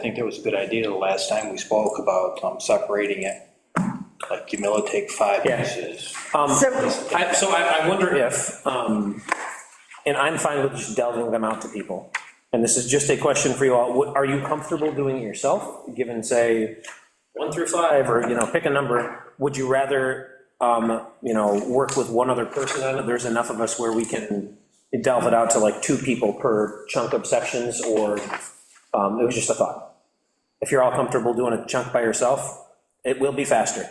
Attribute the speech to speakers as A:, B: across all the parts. A: I think that was a good idea the last time we spoke about um, separating it, like Jamila take five
B: Yeah.
A: pieces.
B: Um,
C: So-
B: I, so I, I wonder if, um, and I'm fine with just delving them out to people, and this is just a question for you all, What- are you comfortable doing it yourself, given, say, one through five, or, you know, pick a number, would you rather, um, you know, work with one other person on it, there's enough of us where we can delve it out to like two people per chunk of sections, or, um, it was just a thought. If you're all comfortable doing a chunk by yourself, it will be faster.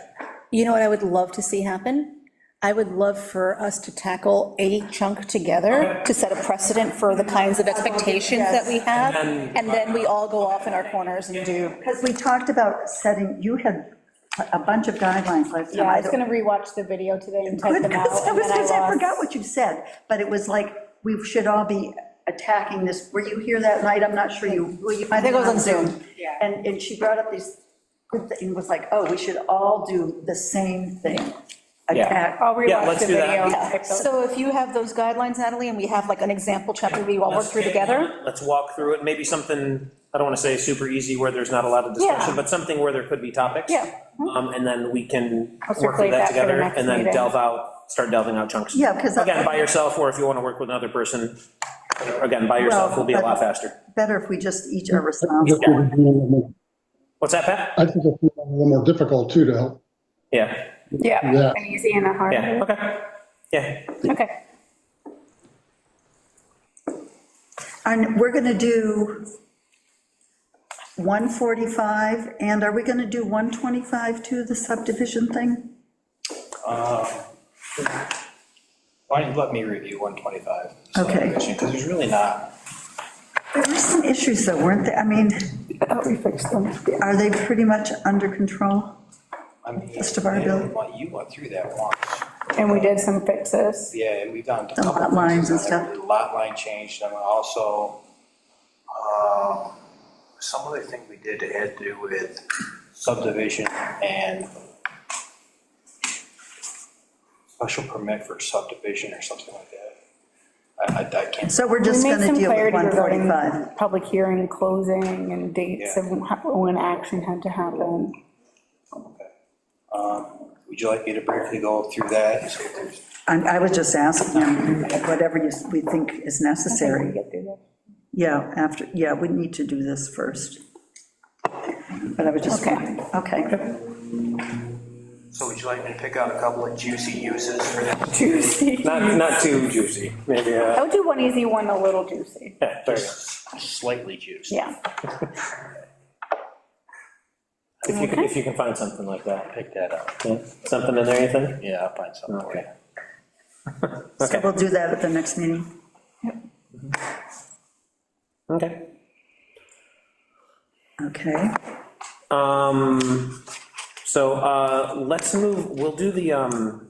C: You know what I would love to see happen? I would love for us to tackle a chunk together to set a precedent for the kinds of expectations that we have,
B: And-
C: and then we all go off in our corners and do.
D: Because we talked about setting, you had a bunch of guidelines last time.
E: Yeah, I was
D: don't-
E: gonna rewatch the video today and type
D: Good,
E: them out.
D: 'cause I
E: and
D: was
E: then
D: gonna say, I
E: lost-
D: forgot what you said, but it was like, we should all be attacking this. Were you here that night? I'm not sure you, were you? I
C: think it was on Zoom.
E: Yeah.
D: And, and she brought up these, good thi- and was like, oh, we should all do the same thing.
B: Yeah.
D: Attack.
E: I'll
B: Yeah,
E: rewatch
B: let's
E: Oh, the
B: do that.
E: video and
C: Yeah.
E: type those.
C: So if you have those guidelines, Natalie, and we have like an example chapter we all work through together,
B: Let's walk through it, maybe something, I don't want to say super easy where there's not a lot of discussion,
C: Yeah.
B: but something where there could be topics.
C: Yeah.
B: Um, and then we can
E: I'll
B: work
E: circulate
B: through that
E: that for the
B: together
E: next
B: and then
E: meeting.
B: delve out, start delving out chunks.
D: Yeah, because.
B: Again, by yourself, or if you want to work with another person, again, by yourself will be a lot faster.
D: Better if we just each are
F: I think
D: responsible.
F: it would be a little more-
B: What's that, Pat?
F: I think it's a little more difficult too to help.
B: Yeah,
F: Yeah.
E: Yeah, an easy and a hard.
B: yeah, okay, yeah.
E: Okay,
D: And we're gonna do 145, and are we gonna do 125 too, the subdivision thing?
A: Um, Why don't you let me review 125?
D: Okay.
A: Because there's really not,
D: There were some issues though, weren't there? I mean,
E: we fixed them.
D: are they pretty much under control?
A: I mean.
D: Just a bar bill.
A: Well, You went through that once,
E: And we did some fixes.
A: yeah, and we've gone. to a
D: The lot
A: couple
D: lines and
A: places on
D: stuff.
A: it. Lot line changed, and also, um, some other thing we did had to do with subdivision and special permit for subdivision or something like that. I, I- I can't,
D: So we're just
E: We made
D: going to
E: some
D: deal with
E: clarity regarding
D: 145.
E: Public hearing, closing, and dates
A: Yeah.
E: of wh- when action had to happen.
A: would you like me to briefly go through that? and see if there's-
D: And I was just asking them, whatever you, we think is necessary.
E: Get through this.
D: Yeah, after, yeah, we need to do this first. But I was just,
E: Okay.
D: wondering. okay.
A: So would you like me to pick out a couple of juicy uses for that?
E: Juicy.
B: Not, not too juicy, maybe, uh,
E: I'll do one easy, one a little juicy.
B: yeah, there you go.
A: Slightly juicy.
E: Yeah,
B: If you can, if you can find something like that,
A: Pick that up.
B: Yeah. something in there, you think?
A: Yeah, I'll find something. for you.
B: Okay.
D: So we'll do that at the next meeting.
B: Okay.
D: Okay.
B: Um, so, uh, let's move, we'll do the, um,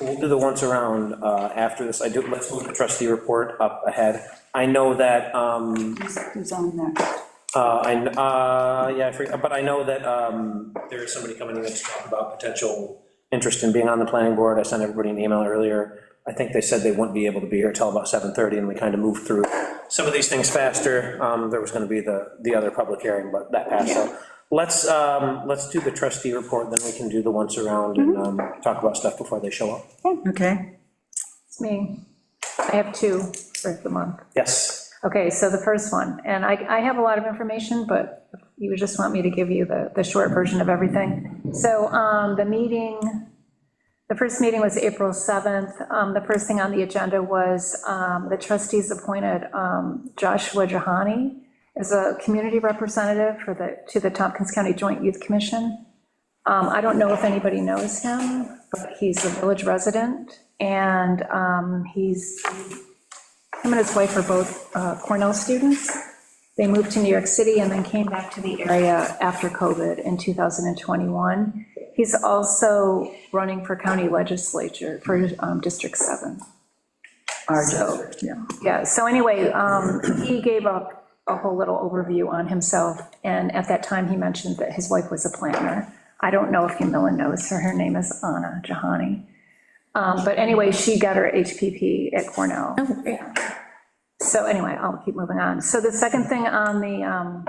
B: we'll do the once around, uh, after this, I do, let's move the trustee report up ahead. I know that, um,
D: Who's who's on there?
B: uh, I, kn- uh, yeah, I forget, but I know that, um, there is somebody coming in to talk about potential interest in being on the planning board, I sent everybody an email earlier. I think they said they wouldn't be able to be here till about 7:30, and we kind of moved through some of these things faster. Um, there was gonna be the, the other public hearing, but that passed, so. Let's, um, let's do the trustee report, then we can do the once around and, um, talk about stuff before they show up.
D: Okay.
G: It's me. I have two for the month.
B: Yes,
G: Okay, so the first one, and I, I have a lot of information, but you just want me to give you the, the short version of everything. So um, the meeting, the first meeting was April 7th. Um, The first thing on the agenda was um, the trustees appointed um, Joshua Jahani as a community representative for the, to the Tompkins County Joint Youth Commission. Um, I don't know if anybody knows him, but he's a village resident, and um, he's, him and his wife are both uh, Cornell students. They moved to New York City and then came back to the area after COVID in 2021. He's also running for county legislature for um, District 7.
D: Our
G: So-
D: district, yeah.
G: Yeah, so anyway, um, he gave up a whole little overview on himself, and at that time, he mentioned that his wife was a planner. I don't know if Camilla knows her, her name is Anna Jahani. Um, But anyway, she got her HPP at Cornell. So anyway, I'll keep moving on. So the second thing on the um,